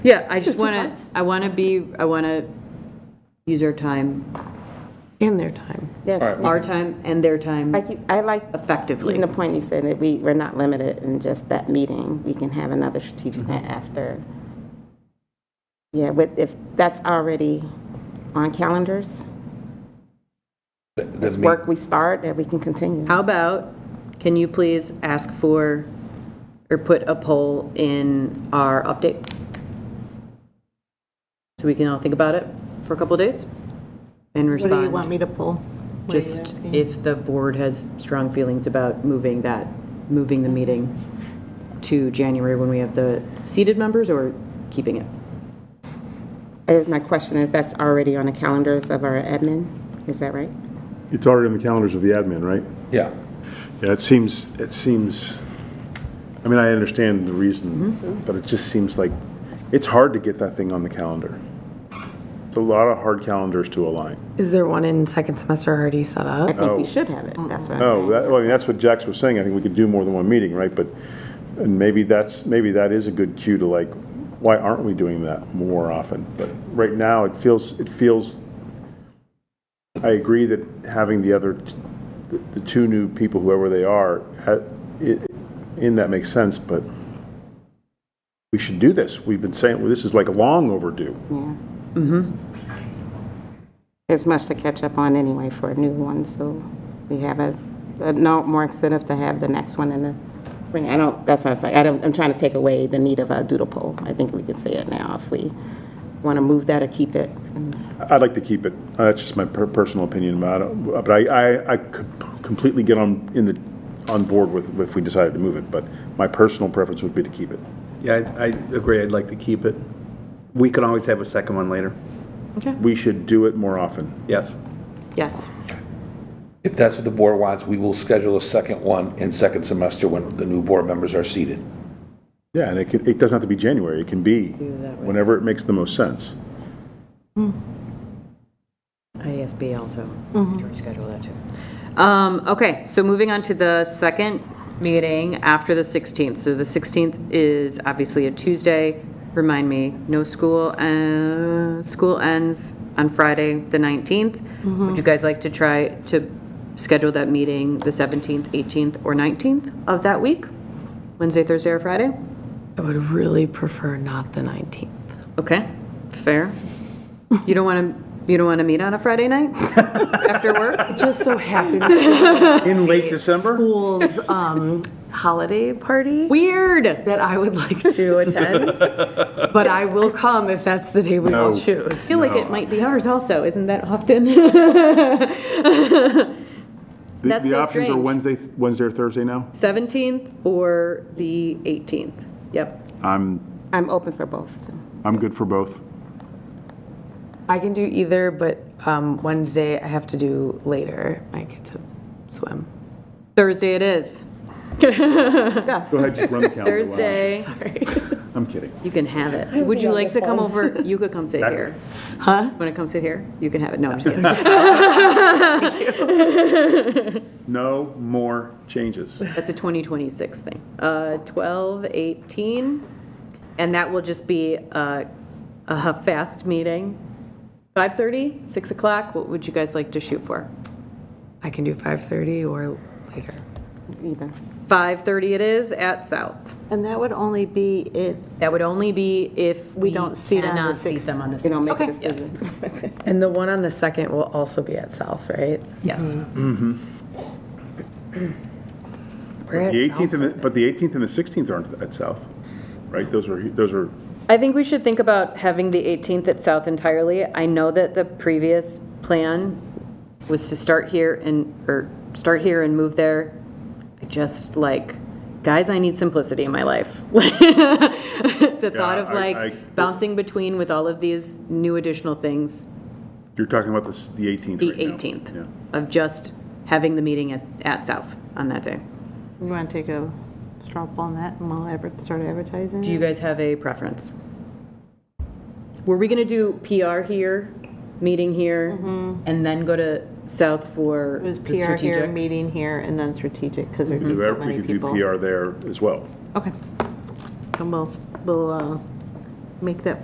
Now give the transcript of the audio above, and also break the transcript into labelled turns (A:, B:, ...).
A: Yeah, I just
B: Two
A: want
B: months.
A: to, I want to be, I want to use our time,
C: in their time.
A: our time and their time
B: Like, you- I like
A: effectively.
B: even the point you said that we, we're not limited in just that meeting. We can have another strategic plan after. Yeah, with, if that's already on calendars,
D: The- the
B: this
D: meet-
B: work we start, that we can continue.
A: How about, can you please ask for, or put a poll in our update? So we can all think about it for a couple of days and
C: What
A: respond.
C: do you want me to pull? What are you
A: Just
C: asking?
A: if the board has strong feelings about moving that, moving the meeting to January when we have the seated members or keeping it?
B: Uh, My question is, that's already on the calendars of our admin, is that right?
E: It's already on the calendars of the admin, right?
D: Yeah.
E: Yeah, it seems, it seems, I mean, I understand the reason, but it just seems like, it's hard to get that thing on the calendar. It's a lot of hard calendars to align.
C: Is there one in second semester already set
B: I
C: up?
B: think we should have it, that's what I'm saying.
E: Oh, that, well, I mean, that's what Jax was saying, I think we could do more than one meeting, right? But, and maybe that's, maybe that is a good cue to like, why aren't we doing that more often? But right now, it feels, it feels, I agree that having the other, t- the- the two new people, whoever they are, ha- it- in that makes sense, but we should do this. We've been saying, well, this is like long overdue.
B: There's much to catch up on anyway for a new one, so we have a, a no, more incentive to have the next one in the spring. I don't, that's what I'm saying, I don't, I'm trying to take away the need of a doodle poll. I think we can say it now if we want to move that or keep it.
E: I'd like to keep it. Uh, That's just my per- personal opinion about it. Uh, But I, I, I could completely get on, in the, on board with, if we decided to move it, but my personal preference would be to keep it.
F: Yeah, I, I agree, I'd like to keep it. We can always have a second one later,
E: We should do it more often.
F: yes.
C: Yes.
D: If that's what the board wants, we will schedule a second one in second semester when the new board members are seated.
E: Yeah, and it can, it doesn't have to be January. It can be whenever it makes the most sense.
A: IASB also reschedule that too. Um, okay, so moving on to the second meeting after the 16th. So the 16th is obviously a Tuesday. Remind me, no school, uh, school ends on Friday, the 19th. Would you guys like to try to schedule that meeting the 17th, 18th, or 19th of that week? Wednesday, Thursday, or Friday?
C: I would really prefer not the 19th.
A: Okay, fair. You don't want to, you don't want to meet on a Friday night after work?
C: It just so happens
E: In late December?
C: school's um, holiday party
A: Weird.
C: that I would like to attend, but I will come if that's the day we all
E: No.
A: I
C: choose.
A: feel like it might be ours also. Isn't that often?
E: The-
A: That's
E: The
A: so
E: options are
A: strange.
E: Wednesday, Wednesday or Thursday now?
A: 17th or the 18th? Yep.
E: I'm,
B: I'm open for both, so.
E: I'm good for both.
C: I can do either, but um, Wednesday I have to do later. My kids have swim.
A: Thursday it is.
E: Go ahead, just run the calendar. Why not?
A: Thursday.
C: Sorry.
E: I'm kidding.
A: You can have it. Would you like to come over? You could come sit here. Huh? Want to come sit here? You can have it. No, I'm just kidding.
E: No more changes.
A: That's a 2026 thing. Uh, 12, 18, and that will just be a, a fast meeting. 5:30, 6 o'clock? What would you guys like to shoot for?
C: I can do 5:30 or later.
B: either.
A: 5:30 it is at South.
G: And that would only be if,
A: That would only be if we
G: don't see it on the
A: cannot see
G: 6th.
A: them on the 6th.
B: We don't make a decision.
C: And the one on the second will also be at South, right?
A: Yes.
C: We're at
E: The
C: South.
E: 18th and, the- but the 18th and the 16th aren't at South, right? Those are, those are
A: I think we should think about having the 18th at South entirely. I know that the previous plan was to start here and, or start here and move there. I just like, guys, I need simplicity in my life. The thought
E: Yeah,
A: of
E: I- I-
A: like bouncing between with all of these new additional things,
E: You're talking about this, the 18th
A: the
E: right now.
A: 18th,
E: Yeah.
A: of just having the meeting at, at South on that day.
G: you want to take a straw poll on that and we'll adver- start advertising?
A: Do you guys have a preference? Were we gonna do PR here, meeting here, and then go to South for
G: Mm-hmm. It was
A: the
G: PR here,
A: strategic?
G: meeting here, and then strategic, because there'd be
E: Do
G: so
E: that- Mm-hmm. We
G: many
E: could do
G: people.
E: PR there as well.
G: Okay. And we'll, s- we'll uh, make that